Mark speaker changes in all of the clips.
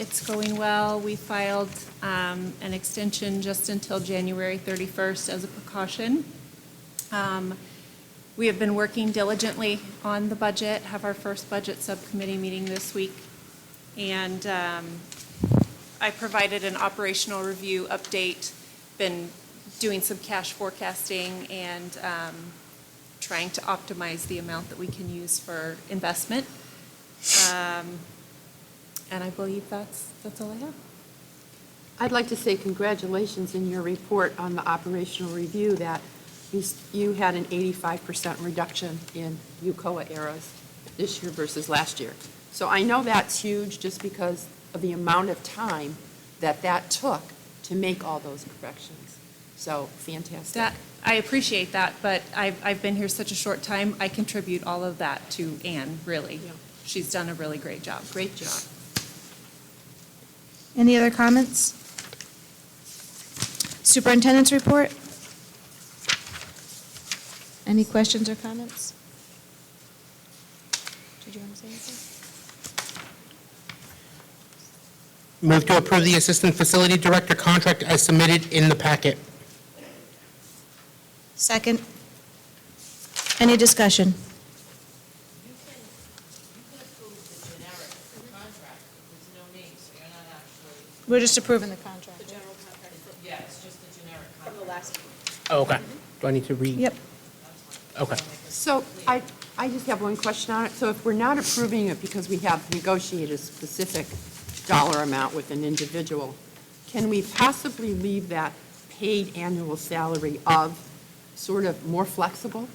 Speaker 1: It's going well. We filed um, an extension just until January 31st as a precaution. Um, We have been working diligently on the budget, have our first budget subcommittee meeting this week. And um, I provided an operational review update, been doing some cash forecasting and um, trying to optimize the amount that we can use for investment. Um, And I believe that's, that's all I have.
Speaker 2: I'd like to say congratulations in your report on the operational review that you s- you had an 85% reduction in UCOA errors this year versus last year. So I know that's huge just because of the amount of time that that took to make all those corrections. So fantastic.
Speaker 1: That, I appreciate that, but I've, I've been here such a short time, I contribute all of that to Anne, really.
Speaker 2: Yeah.
Speaker 1: She's done a really great job.
Speaker 2: Great job.
Speaker 3: Any other comments? Superintendent's report? Any questions or comments? Did you want to say anything?
Speaker 4: Move to approve the Assistant Facility Director contract as submitted in the packet.
Speaker 3: Second. Any discussion?
Speaker 5: You can, you can approve the generic contract, there's no name, so you're not actually,
Speaker 3: We're just approving the contract.
Speaker 5: yeah, it's just the generic contract. From the last
Speaker 4: Oh, okay. Do I need to read?
Speaker 3: Yep.
Speaker 4: Okay.
Speaker 2: So I, I just have one question on it. So if we're not approving it because we have negotiated a specific dollar amount with an individual, can we possibly leave that paid annual salary of sort of more flexible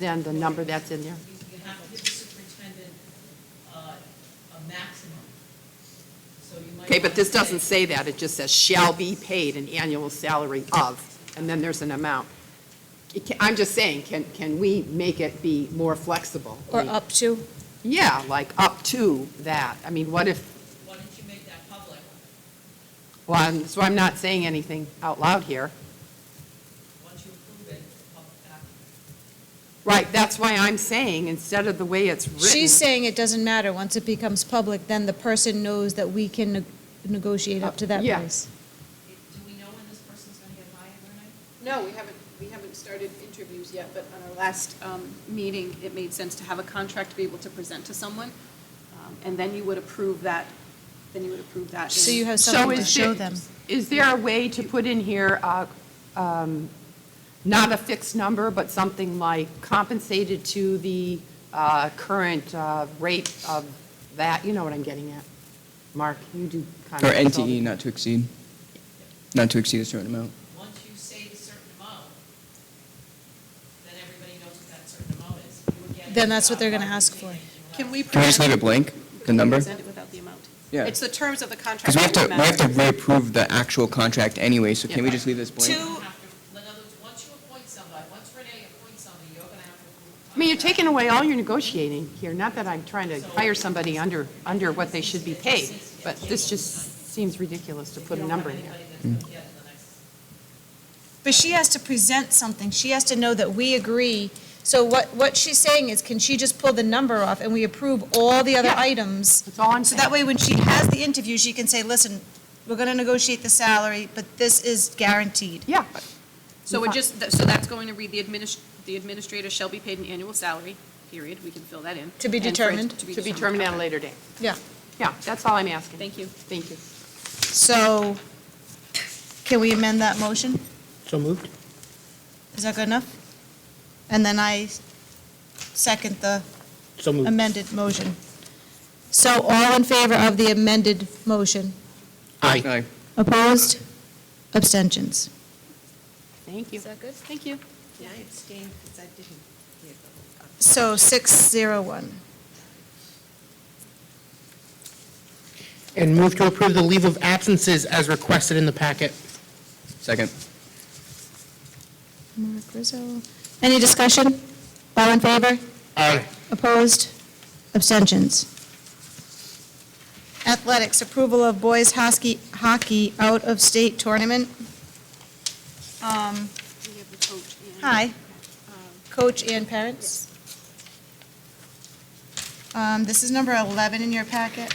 Speaker 2: than the number that's in there?
Speaker 5: You have to give the superintendent uh, a maximum, so you might.
Speaker 2: Okay, but this doesn't
Speaker 5: say.
Speaker 2: say that. It just says shall be paid an annual salary of, and then there's an amount. It ca- I'm just saying, can, can we make it be more flexible?
Speaker 3: Or up to?
Speaker 2: Yeah, like up to that. I mean, what if
Speaker 5: Why don't you make that public?
Speaker 2: Well, I'm- so I'm not saying anything out loud here.
Speaker 5: Once you approve it, public act.
Speaker 2: Right, that's why I'm saying, instead of the way it's written.
Speaker 3: She's saying it doesn't matter. Once it becomes public, then the person knows that we can neg- negotiate up to that
Speaker 2: Yeah.
Speaker 3: price.
Speaker 5: Do we know when this person's going to get hired or not?
Speaker 6: No, we haven't, we haven't started interviews yet, but on our last um, meeting, it made sense to have a contract to be able to present to someone, um, and then you would approve that, then you would approve that.
Speaker 3: So
Speaker 6: in-
Speaker 3: you have
Speaker 2: So
Speaker 3: something to
Speaker 2: is
Speaker 3: show
Speaker 2: it-
Speaker 3: them.
Speaker 2: Is there a way to put in here, uh, um, not a fixed number, but something like compensated to the uh, current uh, rate of that? You know what I'm getting at. Mark, you do kind
Speaker 7: Or E,
Speaker 2: of.
Speaker 7: NTE, not to exceed, not to exceed a certain amount.
Speaker 5: Once you say the certain amount, then everybody knows what that certain amount is. You were getting
Speaker 3: Then that's what
Speaker 5: about
Speaker 3: they're gonna
Speaker 5: what you
Speaker 3: ask
Speaker 5: paid
Speaker 3: for.
Speaker 5: and you were
Speaker 6: Can we
Speaker 7: Can we just leave
Speaker 6: present,
Speaker 7: it blank, the number?
Speaker 6: present it without the amount?
Speaker 7: Yeah.
Speaker 6: It's the terms of the contract.
Speaker 7: Because we have to,
Speaker 6: that
Speaker 7: we have to
Speaker 6: matter.
Speaker 7: reapprove the actual contract anyway, so can we just leave this blank?
Speaker 3: Two-
Speaker 5: have to, in other words, once you appoint somebody, once Renee appoints somebody, you're gonna have to approve the
Speaker 2: I mean, you're
Speaker 5: contract.
Speaker 2: taking away all your negotiating here, not that I'm trying to hire somebody under, under what they should be paid, but this just seems ridiculous to put a number in here.
Speaker 5: Yeah, the next-
Speaker 3: But she has to present something. She has to know that we agree. So what, what she's saying is, can she just pull the number off and we approve all the other
Speaker 2: Yeah.
Speaker 3: items?
Speaker 2: That's all I'm
Speaker 3: So
Speaker 2: saying.
Speaker 3: that way, when she has the interview, she can say, listen, we're going to negotiate the salary, but this is guaranteed.
Speaker 2: Yeah, but
Speaker 6: So it just, so that's going to read, the adminis, the administrator shall be paid an annual salary, period, we can fill that in.
Speaker 3: To be
Speaker 6: And for it
Speaker 3: determined.
Speaker 2: to be determined at a
Speaker 6: Okay.
Speaker 2: later date.
Speaker 3: Yeah.
Speaker 2: Yeah, that's all I'm asking.
Speaker 6: Thank you.
Speaker 2: Thank you.
Speaker 3: So can we amend that motion?
Speaker 4: So moved?
Speaker 3: Is that good enough? And then I second the
Speaker 4: So moved.
Speaker 3: amended motion. So all in favor of the amended motion?
Speaker 4: Aye.
Speaker 3: Opposed? Abstentions?
Speaker 2: Thank you.
Speaker 3: that good?
Speaker 6: Thank you.
Speaker 5: Yeah, I abstained because I didn't hear the whole contract.
Speaker 3: So 601.
Speaker 4: And move to approve the leave of absences as requested in the packet.
Speaker 7: Second.
Speaker 3: Mark Rizzo. Any discussion? All in favor?
Speaker 4: Aye.
Speaker 3: Opposed? Abstentions? Athletics, approval of boys hockey, hockey out-of-state tournament. Um,
Speaker 6: We have the coach and-
Speaker 3: Hi. Coach and parents. Um, This is number 11 in your packet.